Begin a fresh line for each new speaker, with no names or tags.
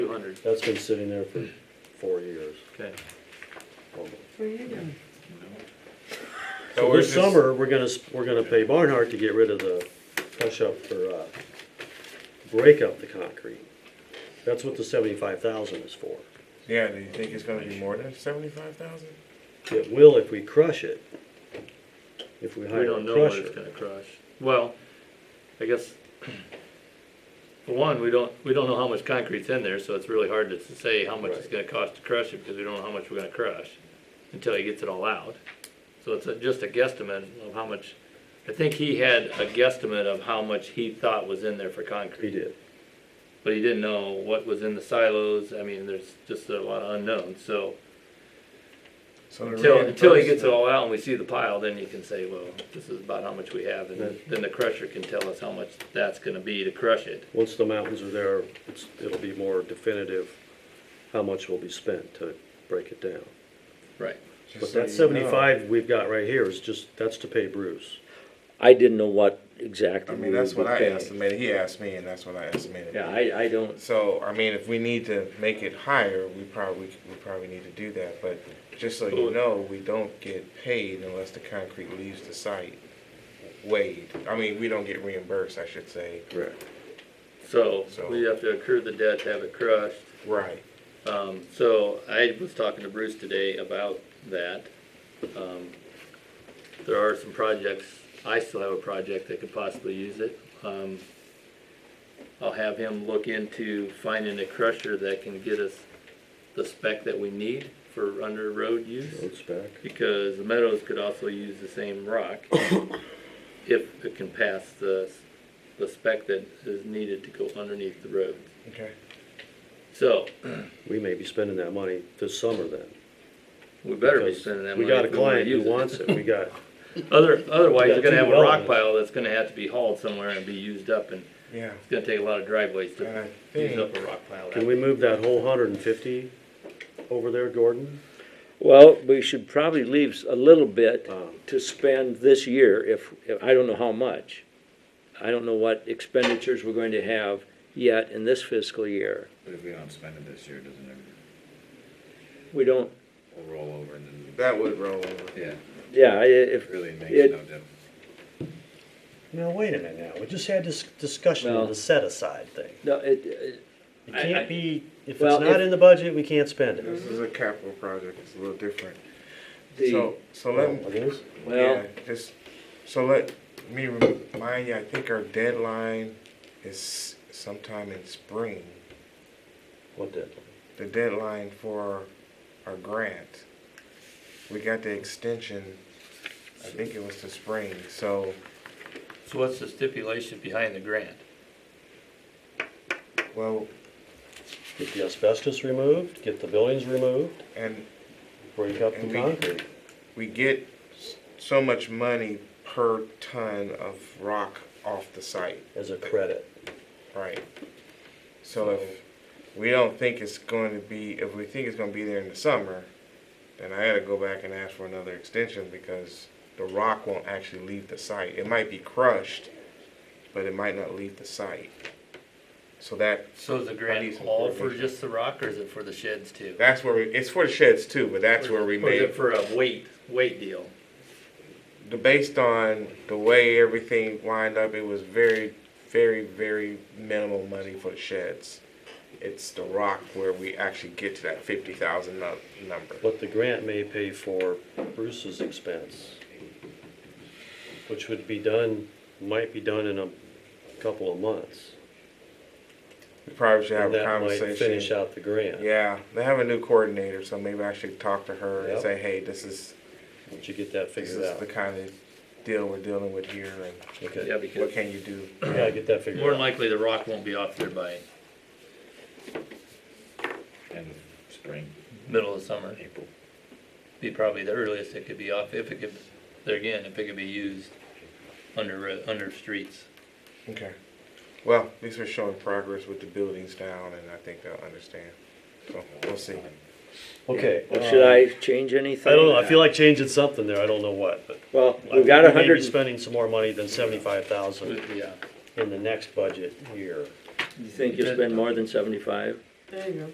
hundred,
That's been sitting there for four years.
okay.
almost.
For you.
So this summer, we're gonna, s- we're gonna pay Barnhart to get rid of the push up for, uh, break up the concrete. That's what the seventy-five thousand is for.
Yeah, do you think it's gonna be more than seventy-five thousand?
It will if we crush it. If we
We
hire
don't
a
know what it's
crusher.
gonna crush. Well, I guess, for one, we don't, we don't know how much concrete's in there, so it's really hard to say how much it's gonna cost to crush it, because we don't know how much we're gonna crush until he gets it all out. So it's a- just a guesstimate of how much, I think he had a guesstimate of how much he thought was in there for concrete.
He did.
but he didn't know what was in the silos. I mean, there's just a lot of unknowns. So
So the
until until he gets it
reimbursement-
all out and we see the pile, then you can say, well, this is about how much we have, and
Right.
then the crusher can tell us how much that's going to be to crush it.
Once the mountains are there, it's, it'll be more definitive how much will be spent to break it down.
Right.
just
But
so
that
you know.
seventy-five we've got right here is just, that's to pay Bruce.
I didn't know what exactly.
I
we
mean, that's
would
what I
pay.
estimated, he asked me and that's what I estimated.
Yeah, I, I don't,
So, I mean, if we need to make it higher, we probably, we probably need to do that, but just so you know, we don't get paid unless the concrete leaves the site weighed. I mean, we don't get reimbursed, I should say.
Right.
So,
So-
we have to accrue the debt to have it crushed.
Right.
Um, so I was talking to Bruce today about that. Um, there are some projects, I still have a project that could possibly use it. Um, I'll have him look into finding a crusher that can get us the spec that we need for under road use
Road spec.
because the Meadows could also use the same rock if it can pass the, the spec that is needed to go underneath the road.
Okay.
So,
We may be spending that money this summer then.
we better be
because
spending that
We
money.
got a
if wanna
client who
use it.
wants it, we got,
Other, otherwise,
We got
you're gonna
two
have a rock
developments.
pile that's gonna have to be hauled somewhere and be used up, and
Yeah.
it's gonna take a lot of driveways
And I
to use
think,
up a rock pile.
can we move that whole hundred and fifty over there, Gordon?
well, we should probably leave a little bit
Um,
to spend this year if, if, I don't know how much. I don't know what expenditures we're going to have yet in this fiscal year.
But if we don't spend it this year, doesn't it
We don't,
will roll over and then,
that would roll over.
yeah,
yeah, I- if,
really it makes
It-
no difference.
Now, wait a minute now, we just had this discussion
Well-
of the set aside thing.
no, it, uh,
It
I- I-
can't be, if it's
Well, if-
not in the budget, we can't spend
This
it.
is a capital project, it's a little different.
the,
So, so let,
It is?
well,
Yeah, just, so let me remind you, I think our deadline is sometime in spring.
What did?
The deadline for our grant. We got the extension, I think it was to spring, so,
So what's the stipulation behind the grant?
well,
Get the asbestos removed, get the buildings removed,
and
break up the
And we-
concrete.
we get s- so much money per ton of rock off the site.
as a credit.
Right. So if we don't think it's going to be, if we think it's going to be there in the summer, then I got to go back and ask for another extension because the rock won't actually leave the site. It might be crushed, but it might not leave the site. So that
So is the
I need
grant
some
all for
coordination.
just the rock, or is it for the sheds too?
that's where we, it's for the sheds too, but that's where we
Or is it
made
for a weight, weight deal?
the based on the way everything lined up. It was very, very, very minimal money for the sheds. It's the rock where we actually get to that fifty thousand number.
But the grant may pay for Bruce's expense, which would be done, might be done in a couple of months.
We probably should have
And
a
that might finish
conversation.
out the grant.
Yeah, they have a new coordinator, so maybe I should talk to her and
Yep.
say, hey, this is,
Once you get that
this
figured
is
out.
the kind of deal we're dealing with here
Yeah,
Okay, you
and what
because
can you do?
gotta get that
more
figured
than
out.
likely the rock won't be off there by
End of spring,
middle of summer.
April.
Be probably the earliest it could be off, if it could, there again, if it could be used under, ro- under streets.
Okay. Well, at least we're showing progress with the buildings down and I think they'll understand. So we'll see.
Okay.
well, should
um,
I change anything?
Uh, I don't know, I feel like changing something there, I don't know what, but.
Well,
I
we've
think
got
We
a
may be
hundred,
spending some more money than seventy-five thousand
Yeah.
in the next budget year.
you think you'll spend more than seventy-five?
There you go.